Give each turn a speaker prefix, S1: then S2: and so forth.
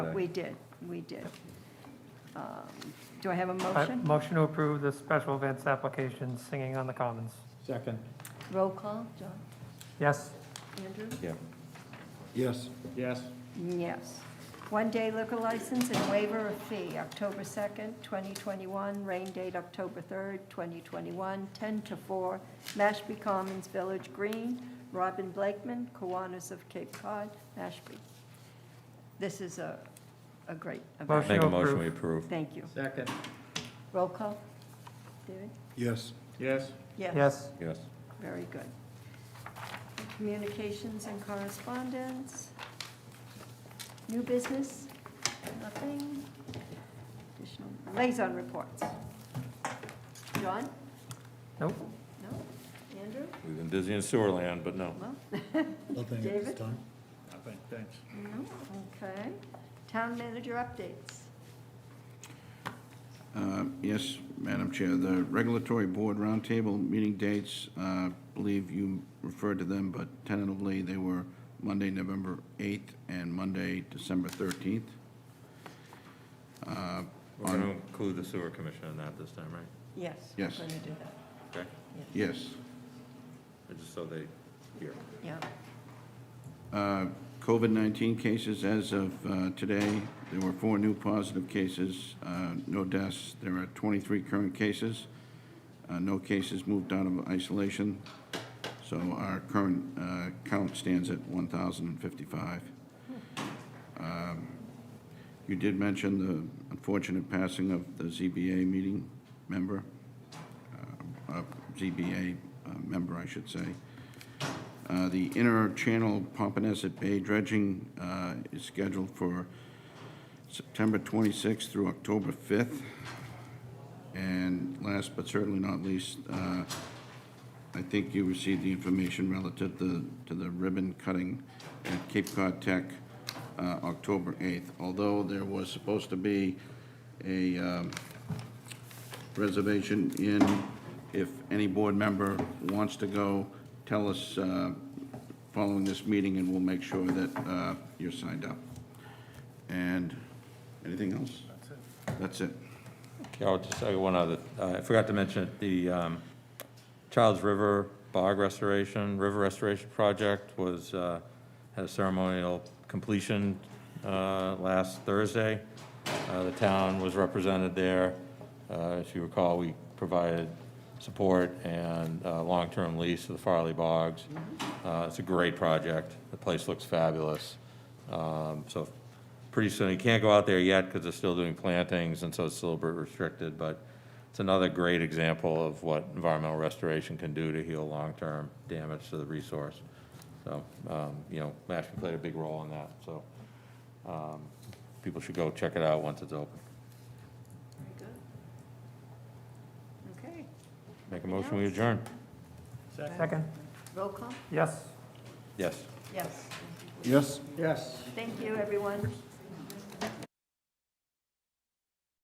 S1: We did, we did. Um, Do I have a
S2: I-
S1: motion?
S2: Motion to approve the special events application, Singing on the Commons.
S3: Second.
S1: Roll call, John,
S2: Yes?
S1: Andrew?
S4: Yeah.
S3: Yes. Yes.
S1: Yes. One-day liquor license and waiver of fee, October 2nd, 2021, rain date October 3rd, 2021, 10 to 4, Mashpee Commons Village Green, Robin Blakeman, Kiwanis of Cape Cod, Mashpee. This is a, a great event.
S2: Motion.
S4: Make a
S2: to
S4: motion,
S2: approve.
S4: we approve.
S1: Thank you.
S3: Second.
S1: Roll call, David?
S3: Yes. Yes.
S2: Yes.
S4: Yes.
S1: Very good. Communications and correspondence. New business, nothing. Additional liaison reports. John?
S2: Nope.
S1: No? Andrew?
S4: We've been busy in sewer land, but no.
S1: Well,
S3: Nothing
S1: at this David?
S3: time. Nothing, thanks.
S1: no, okay. Town manager updates.
S5: Uh, Yes, Madam Chair, the Regulatory Board Roundtable meeting dates, uh, believe you referred to them, but tentatively, they were Monday, November 8th, and Monday, December 13th. Uh,
S4: We're going to include the sewer commission in that this time, right?
S1: Yes.
S5: Yes.
S1: We're going to do that,
S4: Okay?
S5: Yes.
S4: Just so they hear.
S1: yeah.
S5: Uh, COVID-19 cases as of uh, today, there were four new positive cases, uh, no deaths. There are 23 current cases, uh, no cases moved out of isolation. So our current uh, count stands at 1,055. Um, You did mention the unfortunate passing of the ZBA meeting member, uh, uh, ZBA uh, member, I should say. Uh, The inner channel Pompanesett Bay dredging uh, is scheduled for September 26th through October 5th. And last but certainly not least, uh, I think you received the information relative to to the ribbon cutting at Cape Cod Tech, uh, October 8th. Although there was supposed to be a um, reservation in. If any board member wants to go, tell us uh, following this meeting, and we'll make sure that uh, you're signed up. And anything else? That's it. That's it.
S4: Yeah, I'll just say one other, uh, I forgot to mention, it. the um, Child's River Bog Restoration, River Restoration Project was, uh, had a ceremonial completion uh, last Thursday. Uh, The town was represented there. Uh, If you recall, we provided support and uh, long-term lease to the Farley Bogs. Uh, It's a great project. The place looks fabulous. Um, So pretty soon, you can't go out there yet because they're still doing plantings, and so it's a little bit restricted, but it's another great example of what environmental restoration can do to heal long-term damage to the resource. So, um, you know, Mashpee played a big role in that, so um, people should go check it out once it's open.
S1: Very good. Okay,
S4: Make a motion, we adjourn.
S2: Second?
S1: roll call?
S2: Yes.
S4: Yes.
S1: Yes.
S3: Yes. Yes.
S1: Thank you, everyone.